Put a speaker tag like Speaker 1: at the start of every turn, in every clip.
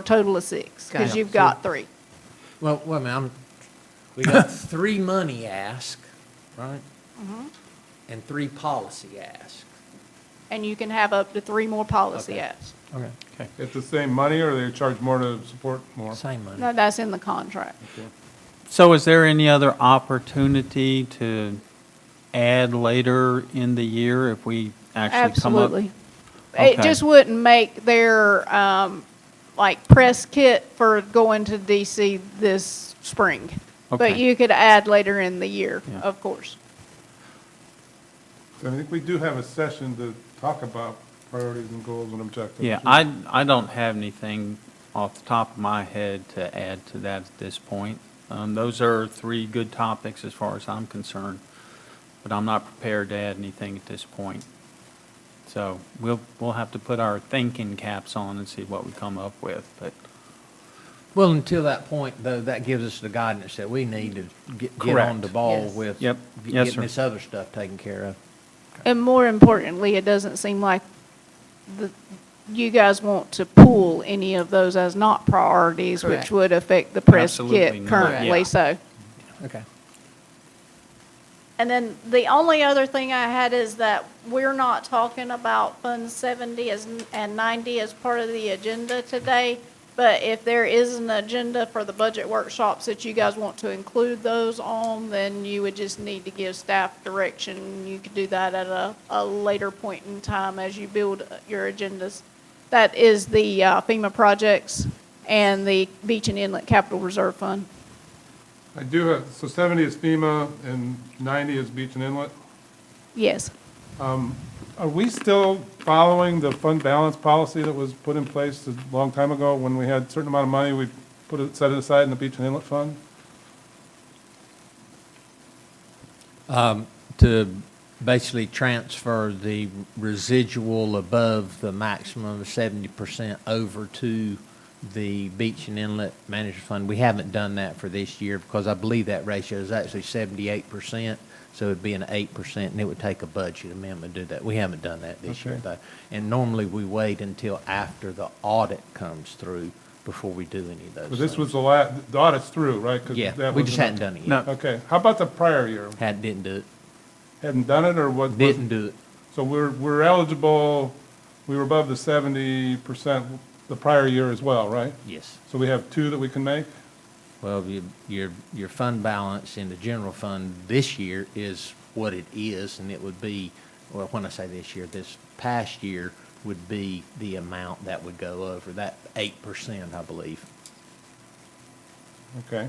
Speaker 1: a total of six, because
Speaker 2: Okay.
Speaker 1: you've got three.
Speaker 2: Well, wait a minute, I'm, we got three money ask, right? And three policy ask.
Speaker 1: And you can have up to three more policy
Speaker 2: Okay.
Speaker 1: apps.
Speaker 2: Okay.
Speaker 3: It's the same money, or they charge more to support more?
Speaker 2: Same money.
Speaker 1: No, that's in the contract.
Speaker 4: So is there any other opportunity to add later in the year if we actually come up?
Speaker 1: Absolutely. It
Speaker 4: Okay.
Speaker 1: just wouldn't make their, um, like, press kit for going to DC this spring. But
Speaker 4: Okay.
Speaker 1: you could add later in the year,
Speaker 4: Yeah.
Speaker 1: of course.
Speaker 3: I think we do have a session to talk about priorities and goals and objectives.
Speaker 4: Yeah, I, I don't have anything off the top of my head to add to that at this point. Um, those are three good topics as far as I'm concerned, but I'm not prepared to add anything at this point. So we'll, we'll have to put our thinking caps on and see what we come up with, but
Speaker 2: Well, until that point, though, that gives us the guidance that we need to get, get on
Speaker 4: Correct.
Speaker 2: the ball
Speaker 1: Yes.
Speaker 2: with.
Speaker 4: Yep.
Speaker 2: get-
Speaker 4: Yes,
Speaker 2: Getting
Speaker 4: sir.
Speaker 2: this other stuff taken care of.
Speaker 1: And more importantly, it doesn't seem like the, you guys want to pool any of those as not priorities, which
Speaker 2: Correct.
Speaker 1: would affect the press
Speaker 4: Absolutely
Speaker 1: kit
Speaker 4: not,
Speaker 1: currently,
Speaker 4: yeah.
Speaker 1: so.
Speaker 2: Okay.
Speaker 1: And then the only other thing I had is that we're not talking about Fund 70 as- and 90 as part of the agenda today, but if there is an agenda for the budget workshops that you guys want to include those on, then you would just need to give staff direction. You could do that at a, a later point in time as you build your agendas. That is the uh, FEMA projects and the Beach and Inlet Capital Reserve Fund.
Speaker 3: I do have, so 70 is FEMA and 90 is beach and inlet.
Speaker 1: Yes.
Speaker 3: Are we still following the fund balance policy that was put in place a long time ago when we had a certain amount of money, we put it, set it aside in the beach and inlet fund?
Speaker 2: To basically transfer the residual above the maximum of seventy percent over to the Beach and Inlet Management Fund. We haven't done that for this year because I believe that ratio is actually seventy-eight percent. So it'd be an eight percent and it would take a budget amendment to do that. We haven't done that this year
Speaker 3: Okay.
Speaker 2: though. And normally we wait until after the audit comes through before we do any of those
Speaker 3: But this
Speaker 2: things.
Speaker 3: was the la, the audit's through, right? 'Cause
Speaker 2: Yeah,
Speaker 3: that
Speaker 2: we
Speaker 3: was
Speaker 2: just
Speaker 3: in-
Speaker 2: hadn't done it
Speaker 4: No.
Speaker 2: yet.
Speaker 3: Okay, how about the prior year?
Speaker 2: Had, didn't do it,
Speaker 3: Hadn't done it, or what?
Speaker 2: didn't do it.
Speaker 3: So we're, we're eligible, we were above the 70% the prior year as well, right?
Speaker 2: Yes.
Speaker 3: So we have two that we can make?
Speaker 2: Well, your, your, your fund balance in the general fund this year is what it is, and it would be, well, when I say this year, this past year would be the amount that would go over, that eight percent, I believe.
Speaker 3: Okay.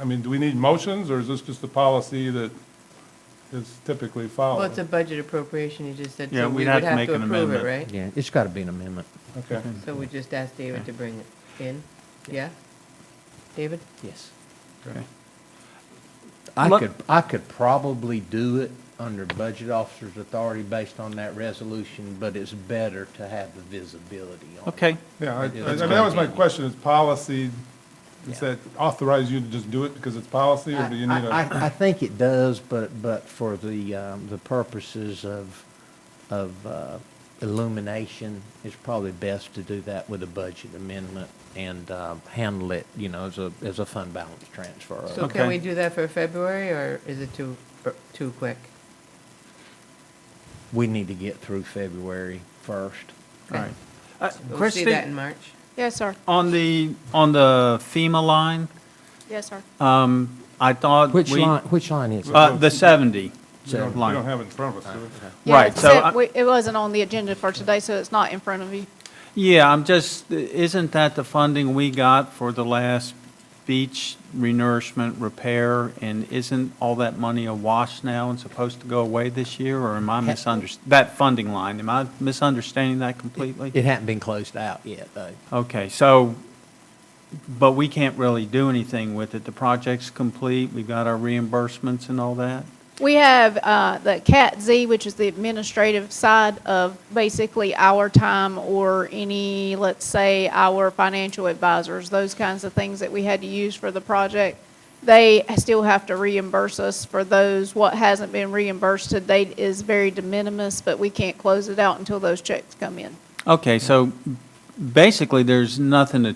Speaker 3: I mean, do we need motions, or is this just a policy that is typically
Speaker 5: Well,
Speaker 3: followed?
Speaker 5: it's a budget appropriation, you just said,
Speaker 4: Oh. Yeah,
Speaker 5: so
Speaker 4: we'd
Speaker 5: we would
Speaker 4: have
Speaker 5: have
Speaker 4: to make
Speaker 5: to
Speaker 4: an
Speaker 5: approve it,
Speaker 4: amendment.
Speaker 5: right?
Speaker 2: Yeah, it's gotta be an amendment.
Speaker 3: Okay.
Speaker 5: So we just asked David to bring it in, yeah? David?
Speaker 2: Yes.
Speaker 3: Okay.
Speaker 2: I
Speaker 4: Let-
Speaker 2: could, I could probably do it under budget officer's authority based on that resolution, but it's better to have the visibility on it.
Speaker 4: Okay,
Speaker 3: Yeah, I,
Speaker 2: Yeah,
Speaker 3: I I mean,
Speaker 2: that's
Speaker 3: that was my
Speaker 2: fine.
Speaker 3: question, is policy, does
Speaker 2: Yeah.
Speaker 3: that authorize you to just do it because it's policy, or do you need
Speaker 2: I-
Speaker 3: a?
Speaker 2: I, I think it does, but, but for the, um, the purposes of, of, uh, illumination, it's probably best to do that with a budget amendment and, um, handle it, you know, as a, as a fund balance transfer.
Speaker 5: So
Speaker 4: Okay.
Speaker 5: can we do that for February, or is it too, too quick?
Speaker 2: We need to get through February first.
Speaker 4: all right. Uh,
Speaker 5: We'll see that
Speaker 4: Christie,
Speaker 5: in March.
Speaker 1: Yes, sir.
Speaker 4: on the, on the FEMA line,
Speaker 1: Yes, sir.
Speaker 4: um, I thought
Speaker 2: Which
Speaker 4: we-
Speaker 2: line, which line is it?
Speaker 4: Uh, the 70
Speaker 3: We don't- We don't
Speaker 4: line.
Speaker 3: have it in front of us, do we?
Speaker 1: Yeah,
Speaker 4: Right, so
Speaker 1: except
Speaker 4: I-
Speaker 1: we- It wasn't on the agenda for today, so it's not in front of you.
Speaker 4: Yeah, I'm just, isn't that the funding we got for the last beach renourishment repair? And isn't all that money awash now and supposed to go away this year? Or am I misunderstanding, that funding line, am I misunderstanding that completely?
Speaker 2: It hadn't been closed out yet, though.
Speaker 4: Okay, so, but we can't really do anything with it. The project's complete, we got our reimbursements and all that?
Speaker 1: We have uh, the CAT Z, which is the administrative side of basically our time or any, let's say, our financial advisors, those kinds of things that we had to use for the project. They still have to reimburse us for those. What hasn't been reimbursed to date is very de minimis, but we can't close it out until those checks come in.
Speaker 4: Okay, so basically, there's nothing to